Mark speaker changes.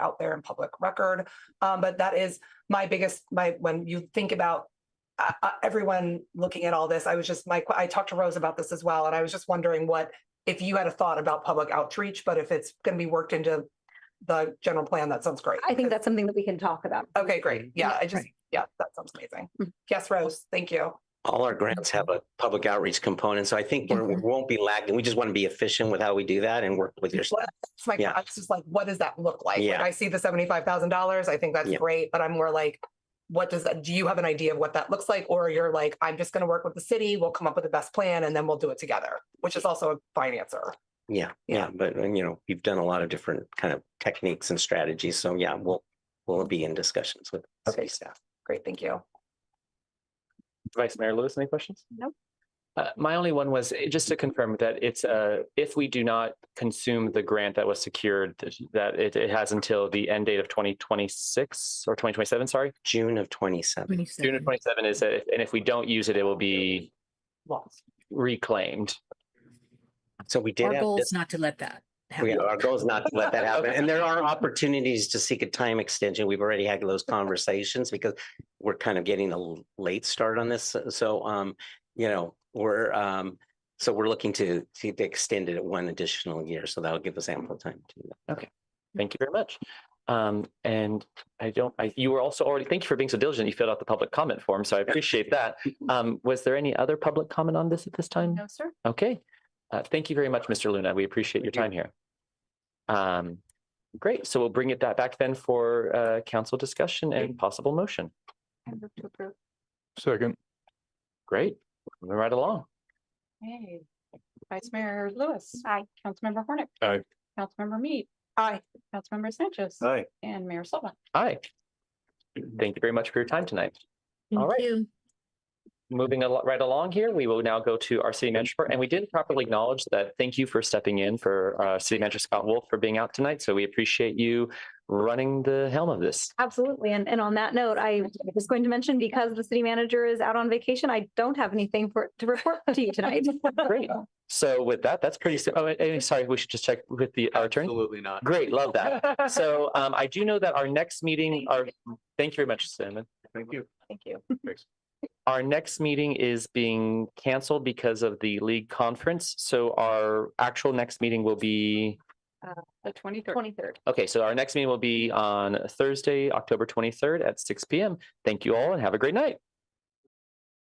Speaker 1: out there in public record. Um, but that is my biggest, my, when you think about uh, uh, everyone looking at all this, I was just, my, I talked to Rose about this as well, and I was just wondering what, if you had a thought about public outreach, but if it's gonna be worked into the general plan, that sounds great.
Speaker 2: I think that's something that we can talk about.
Speaker 1: Okay, great. Yeah, I just,
Speaker 2: Right.
Speaker 1: yeah, that sounds amazing.
Speaker 2: Mhm.
Speaker 1: Yes, Rose, thank you.
Speaker 3: All our grants have a public outreach component, so I think we're,
Speaker 4: Mm-hmm.
Speaker 3: we won't be lagging. We just want to be efficient with how we do that and work with your staff.
Speaker 1: It's like,
Speaker 3: Yeah.
Speaker 1: I was just like, what does that look like? Like,
Speaker 3: Yeah.
Speaker 1: I see the seventy-five thousand dollars. I think that's
Speaker 3: Yeah.
Speaker 1: great, but I'm more like, what does that, do you have an idea of what that looks like? Or you're like, I'm just gonna work with the city, we'll come up with the best plan and then we'll do it together, which is also a financer.
Speaker 3: Yeah, yeah, but and, you know, we've done a lot of different kind of techniques and strategies, so yeah, we'll, we'll be in discussions with
Speaker 1: Okay.
Speaker 3: city staff.
Speaker 1: Great, thank you.
Speaker 5: Vice Mayor Lewis, any questions?
Speaker 2: Nope.
Speaker 5: Uh, my only one was eh, just to confirm that it's, uh, if we do not consume the grant that was secured, th- that it, it has until the end date of twenty twenty-six or twenty twenty-seven, sorry.
Speaker 3: June of twenty-seven.
Speaker 5: June of twenty-seven is, it, and if we don't use it, it will be
Speaker 1: Lots.
Speaker 5: reclaimed.
Speaker 3: So we did
Speaker 4: Our
Speaker 3: have,
Speaker 4: goal
Speaker 3: this-
Speaker 4: is not to let that
Speaker 3: we,
Speaker 4: happen.
Speaker 3: our goal is not to let that happen, and there are opportunities to seek a time extension. We've already had those conversations because we're kind of getting a l- late start on this, so- so, um, you know, we're, um, so we're looking to, to extend it one additional year, so that'll give us ample time to do that.
Speaker 5: Thank you very much. Um, and I don't, I, you were also already, thank you for being so diligent. You filled out the public comment form, so I appreciate that. Um, was there any other public comment on this at this time?
Speaker 2: No, sir.
Speaker 5: Okay. Uh, Thank you very much, Mr. Luna. We appreciate your time here. Um, Great. So we'll bring it that back then for uh, council discussion and possible motion.
Speaker 2: I move to approve.
Speaker 6: Second,
Speaker 5: Great. Moving right along.
Speaker 7: Hey, Vice Mayor Lewis.
Speaker 2: Aye.
Speaker 7: Councilmember Hornick.
Speaker 6: Aye.
Speaker 7: Councilmember Mead.
Speaker 1: Aye.
Speaker 7: Councilmember Sanchez.
Speaker 8: Aye.
Speaker 7: And Mayor Silva.
Speaker 5: Hi. Thank you very much for your time tonight. All right. Moving al- right along here, we will now go to our city manager. report. And we didn't properly acknowledge that. Thank you for stepping in for uh, City Manager Scott Wolf for being out tonight. So we appreciate you running the helm of this.
Speaker 2: Absolutely. And, and on that note, I was going to mention, because the city manager is out on vacation, I don't have anything for, to report to you tonight.
Speaker 5: Great. So with that, that's pretty, sim- oh, and- and sorry, we should just check with the, our attorney.
Speaker 8: Absolutely not.
Speaker 5: Great, love that. So um, I do know that our next meeting, our, thank you very much, Simon.
Speaker 8: Thank you.
Speaker 1: Thank you.
Speaker 8: Thanks.
Speaker 5: Our next meeting is being canceled because of the league conference. So our actual next meeting will be,
Speaker 7: The twenty-third.
Speaker 2: Twenty-third.
Speaker 5: okay, so our next meeting will be on Thursday, October twenty-third at six P M. Thank you all and have a great night.